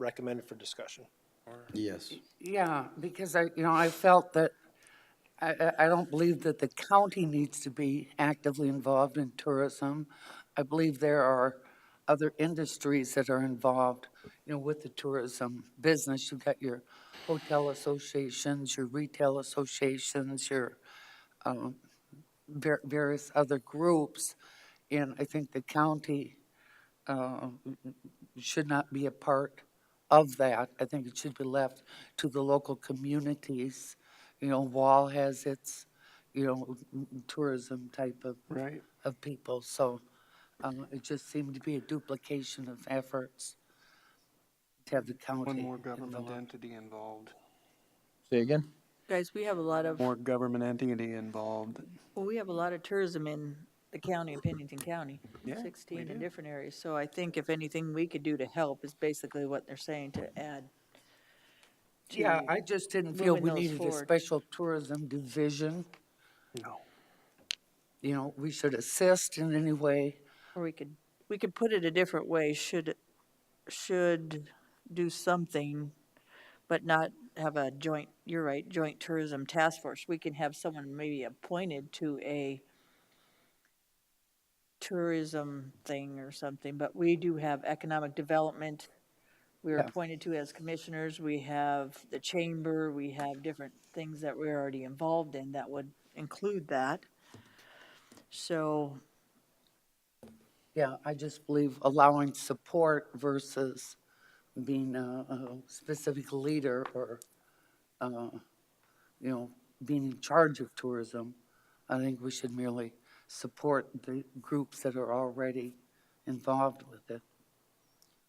recommended for discussion. Yes. Yeah, because I, you know, I felt that, I, I, I don't believe that the county needs to be actively involved in tourism. I believe there are other industries that are involved, you know, with the tourism business. You've got your hotel associations, your retail associations, your, um, var- various other groups. And I think the county, uh, should not be a part of that. I think it should be left to the local communities. You know, Wall has its, you know, tourism type of. Right. Of people, so, um, it just seemed to be a duplication of efforts to have the county. One more government involved. entity involved, Say again? Guys, we have a lot of, more government entity involved. well, we have a lot of tourism in the county, in Pennington County. Yeah, we Sixteen do. in different areas, so I think if anything we could do to help is basically what they're saying to add. to- Yeah, I just didn't feel moving we those needed a forward. special tourism division. No. You know, we should assist in any way. Or we could, we could put it a different way, should, should do something, but not have a joint, you're right, joint tourism task force. We can have someone maybe appointed to a tourism thing or something, but we do have economic development. We're Yeah. appointed to as commissioners, we have the chamber, we have different things that we're already involved in that would include that. So Yeah, I just believe allowing support versus being a, a specific leader or, uh, you know, being in charge of tourism. I think we should merely support the groups that are already involved with it.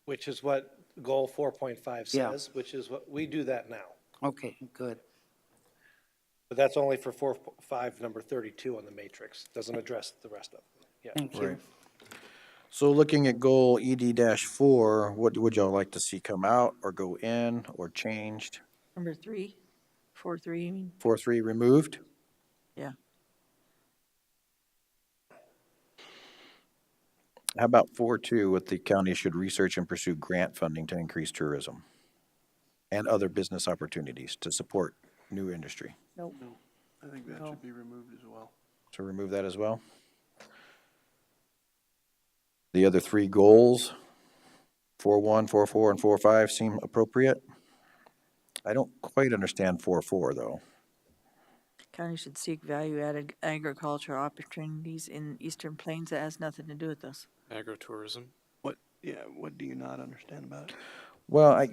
Which is what goal four point five Yeah. says, which is what, we do that now. Okay, good. But that's only for four, five, number thirty-two on the matrix, doesn't address the rest of them. Yeah. Thank you. So looking at goal ED dash four, what would y'all like to see come out or go in or changed? Number three, four, three, you mean? Four, three removed? Yeah. How about four, two, what the county should research and pursue grant funding to increase tourism and other business opportunities to support new industry? Nope. I think that should be removed as well. So remove that as well. The other three goals, four one, four four, and four five seem appropriate. I don't quite understand four four though. County should seek value-added agricultural opportunities in eastern plains. That has nothing to do with us. Agritourism. What, yeah, what do you not understand about it? Well, I,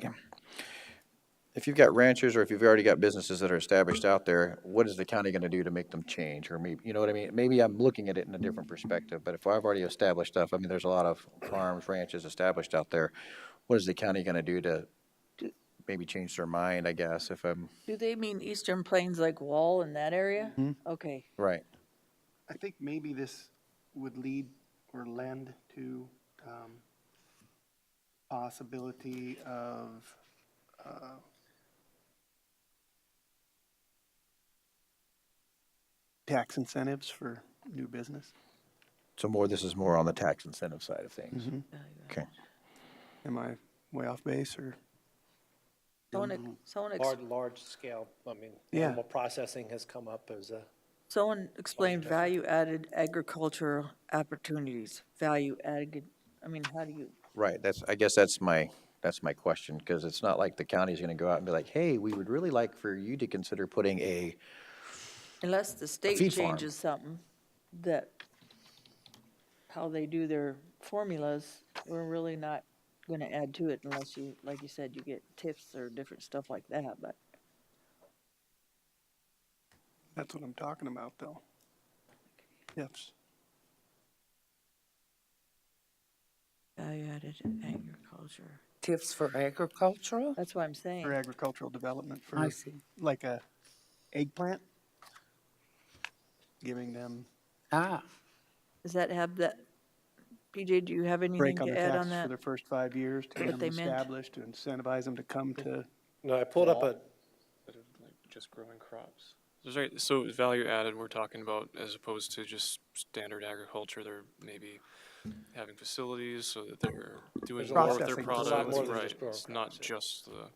if you've got ranchers or if you've already got businesses that are established out there, what is the county gonna do to make them change or maybe, you know what I mean? Maybe I'm looking at it in a different perspective, but if I've already established stuff, I mean, there's a lot of farms, ranches established out there. What is the county gonna do to maybe change their mind, I guess, if I'm, Do they mean eastern plains like Wall in that area? Okay, right? I think maybe this would lead or lend to, um, possibility of, uh, tax incentives for new business. So more, this is more on the tax incentive side of things. Okay. Am I way off base or? someone, ex- someone, ex- Large, large scale, I mean, Yeah. animal processing has come up as a, someone explained value-added agricultural opportunities, value-added, I mean, how do you? Right, that's, I guess that's my, that's my question, because it's not like the county's gonna go out and be like, hey, we would really like for you to consider putting a, Unless the state feed farm. changes something that, how they do their formulas, we're really not gonna add to it unless you, like you said, you get tips or different stuff like that, but. That's what I'm talking about, though. Yes. Value-added agriculture. Tips for agricultural? That's what I'm saying. For agricultural development, for I see. like a eggplant, giving them Ah, Does that have that, PJ, do you have anything break on the to add on taxes for that? their first five years, to What get them they meant. established, to incentivize them to come to, no, I pulled up a, that are, like just growing crops. Sorry, so value added, we're talking about as opposed to just standard agriculture, there may be having facilities so that they're doing There's a more lot- with their Processing. There's a lot more products, than right? just growing It's not crops, yeah. just the.